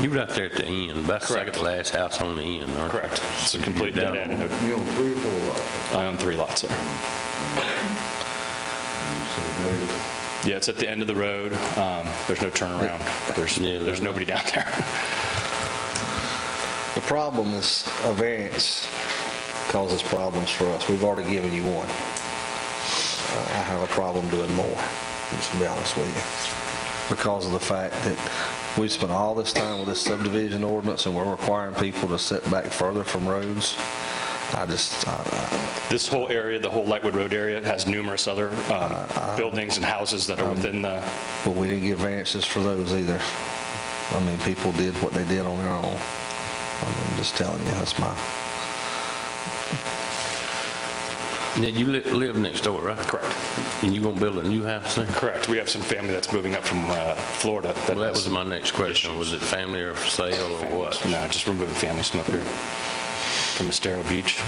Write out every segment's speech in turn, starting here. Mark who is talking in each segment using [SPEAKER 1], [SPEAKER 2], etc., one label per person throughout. [SPEAKER 1] You were out there at the end, about the second
[SPEAKER 2] Correct.
[SPEAKER 1] to last house on the end, aren't you?
[SPEAKER 2] Correct. It's a complete dead end.
[SPEAKER 3] You own three or four lots,
[SPEAKER 2] I own three lots there.
[SPEAKER 3] so there,
[SPEAKER 2] Yeah, it's at the end of the road. Um, There's no turnaround. There's,
[SPEAKER 1] Yeah,
[SPEAKER 2] there's nobody down there.
[SPEAKER 4] The problem is, a variance causes problems for us. We've already given you one. Uh, I have a problem doing more, just to be honest with you, because of the fact that we spent all this time with this subdivision ordinance, and we're requiring people to sit back further from roads. I just, uh, I-
[SPEAKER 2] This whole area, the whole Lightwood Road area, has numerous other um, buildings and houses that are within the,
[SPEAKER 4] I- but we didn't give variances for those either. I mean, people did what they did on their own. I'm just telling you, that's my,
[SPEAKER 1] Now, you li- live next door, right?
[SPEAKER 2] correct.
[SPEAKER 1] And you gonna build a new house there?
[SPEAKER 2] Correct. We have some family that's moving up from uh, Florida.
[SPEAKER 1] Well, that was my next question. Was it family or for sale or what?
[SPEAKER 2] No, just removing families from up here, from Estero Beach.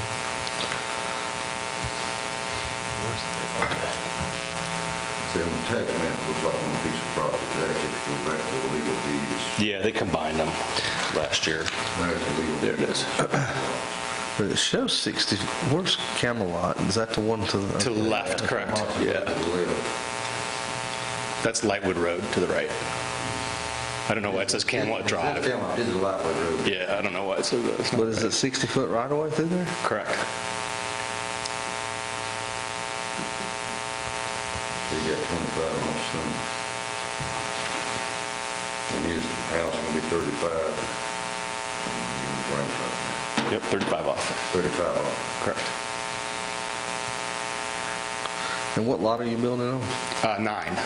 [SPEAKER 3] see, on the tax map, it looks like one piece of property, that if you go back to the legal deed, it's,
[SPEAKER 2] Yeah, they combined them last year.
[SPEAKER 3] there's the legal deed.
[SPEAKER 2] it is.
[SPEAKER 4] but it shows 60, where's Camelot? Is that the one to the?
[SPEAKER 2] To the left, correct. Yeah.
[SPEAKER 3] Yeah.
[SPEAKER 2] That's Lightwood Road to the right. I don't know why it says Camelot Drive.
[SPEAKER 3] This is Lightway Road.
[SPEAKER 2] Yeah, I don't know why it says that. It's not-
[SPEAKER 4] But is it 60-foot right-of-way through there?
[SPEAKER 2] Correct.
[SPEAKER 3] They got 25 on some. And his house gonna be 35. Grandfather,
[SPEAKER 2] Yep, 35 off.
[SPEAKER 3] 35 off.
[SPEAKER 2] Correct.
[SPEAKER 4] And what lot are you building on?
[SPEAKER 2] Uh, Nine.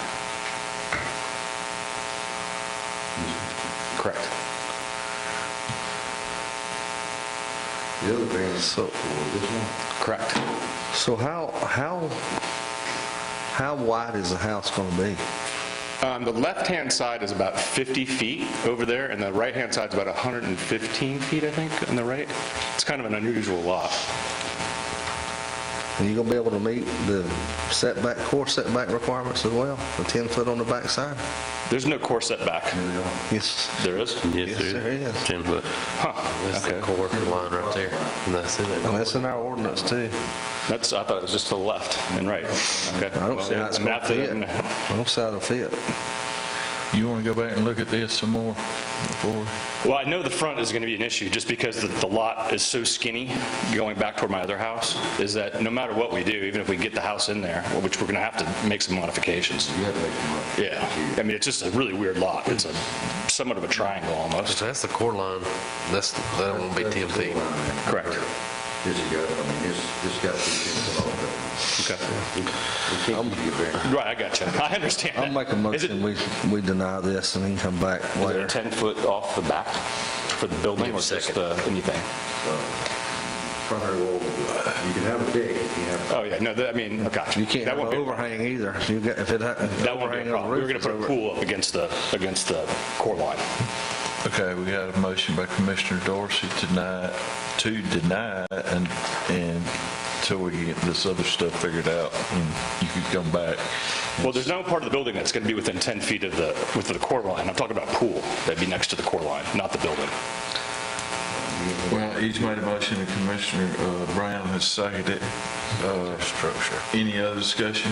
[SPEAKER 2] Correct.
[SPEAKER 3] The other thing,
[SPEAKER 4] So-
[SPEAKER 3] so, this one,
[SPEAKER 2] Correct.
[SPEAKER 4] So how, how, how wide is the house going to be?
[SPEAKER 2] Um, The left-hand side is about 50 feet over there, and the right-hand side's about 115 feet, I think, on the right. It's kind of an unusual lot.
[SPEAKER 4] And you going to be able to meet the setback, core setback requirements as well? The 10-foot on the backside?
[SPEAKER 2] There's no core setback.
[SPEAKER 3] and the other
[SPEAKER 4] Yes.
[SPEAKER 2] There is?
[SPEAKER 4] Yes,
[SPEAKER 1] Yes,
[SPEAKER 4] there
[SPEAKER 1] sir.
[SPEAKER 4] is.
[SPEAKER 1] Ten foot.
[SPEAKER 5] That's the
[SPEAKER 2] Okay.
[SPEAKER 5] core line right there. And that's it.
[SPEAKER 4] And that's in our ordinance too.
[SPEAKER 2] That's, I thought it was just to the left and right. Okay.
[SPEAKER 4] I don't see how
[SPEAKER 2] Well,
[SPEAKER 4] it's
[SPEAKER 2] and
[SPEAKER 4] going to
[SPEAKER 2] after
[SPEAKER 4] fit.
[SPEAKER 2] that-
[SPEAKER 4] I don't see how it'll fit.
[SPEAKER 6] You want to go back and look at this some more before?
[SPEAKER 2] Well, I know the front is going to be an issue, just because the- the lot is so skinny, going back toward my other house, is that no matter what we do, even if we get the house in there, which we're going to have to make some modifications.
[SPEAKER 3] You have to make some money.
[SPEAKER 2] Yeah. I mean, it's just a really weird lot. It's a somewhat of a triangle almost.
[SPEAKER 5] So that's the core line. That's, that won't be 10 feet.
[SPEAKER 2] Correct.
[SPEAKER 3] This has got, I mean, this, this got to be 10 foot off of it.
[SPEAKER 2] Okay.
[SPEAKER 3] We can't give you a variance.
[SPEAKER 2] Right, I got you. I understand
[SPEAKER 4] I'll
[SPEAKER 2] that.
[SPEAKER 4] make a
[SPEAKER 2] Is it-
[SPEAKER 4] motion, we, we deny this and then come back
[SPEAKER 2] Is it
[SPEAKER 4] later.
[SPEAKER 2] 10 foot off the back for the building
[SPEAKER 5] Give me a
[SPEAKER 2] or just
[SPEAKER 5] second.
[SPEAKER 2] uh, anything?
[SPEAKER 3] Primary wall, you can have a deck, if you have,
[SPEAKER 2] Oh, yeah, no, that- I mean, gotcha.
[SPEAKER 4] You can't
[SPEAKER 2] That
[SPEAKER 4] have
[SPEAKER 2] won't
[SPEAKER 4] an
[SPEAKER 2] be a problem.
[SPEAKER 4] overhang either. You got, if it, ha-
[SPEAKER 2] That won't be a
[SPEAKER 4] overhang on
[SPEAKER 2] problem. We
[SPEAKER 4] the roof
[SPEAKER 2] were going
[SPEAKER 4] is
[SPEAKER 2] to put a
[SPEAKER 4] over-
[SPEAKER 2] pool up against the, against the core line.
[SPEAKER 6] Okay, we got a motion by Commissioner Dorsey tonight to deny it and, and till we get this other stuff figured out and you could come back.
[SPEAKER 2] Well, there's no part of the building that's going to be within 10 feet of the, with the core line. I'm talking about pool. That'd be next to the core line, not the building.
[SPEAKER 6] Well, he's made a motion and Commissioner uh, Brown has seconded it. Uh,
[SPEAKER 5] Structure.
[SPEAKER 6] Any other discussion?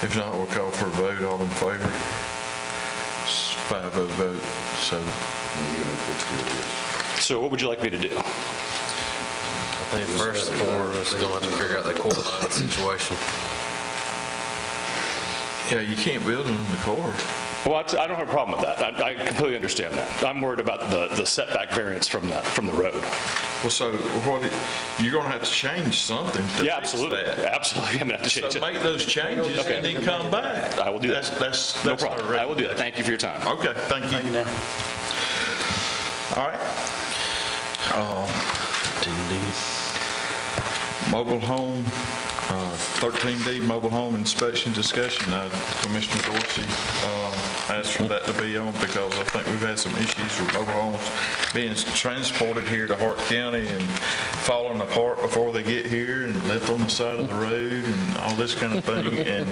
[SPEAKER 6] If not, we'll call for a vote, all in favor. It's Five oh vote, so
[SPEAKER 3] you know, it's good.
[SPEAKER 2] So what would you like me to do?
[SPEAKER 5] I think first, we're just going to have to figure out the core line situation.
[SPEAKER 6] Yeah, you can't build them in the core.
[SPEAKER 2] Well, I I don't have a problem with that. I I completely understand that. I'm worried about the the setback variance from the, from the road.
[SPEAKER 6] Well, so what, it- you're gonna have to change something to
[SPEAKER 2] Yeah,
[SPEAKER 6] fix
[SPEAKER 2] absolutely.
[SPEAKER 6] that.
[SPEAKER 2] Absolutely. I'm going to have to change
[SPEAKER 6] So
[SPEAKER 2] it.
[SPEAKER 6] make those changes
[SPEAKER 2] Okay.
[SPEAKER 6] and then come back.
[SPEAKER 2] I will do that.
[SPEAKER 6] That's, that's.
[SPEAKER 2] No
[SPEAKER 6] that's our
[SPEAKER 2] problem. I will do that. Thank you for your time.
[SPEAKER 6] Okay, thank you. All right. Oh, Um, Mobile home Thirteen D, mobile home inspection discussion. Uh, Commissioner Dorsey um, asked for that to be on because I think we've had some issues with mobile homes being transported here to Hart County and falling apart before they get here and left on the side of the road and all this kind of thing. And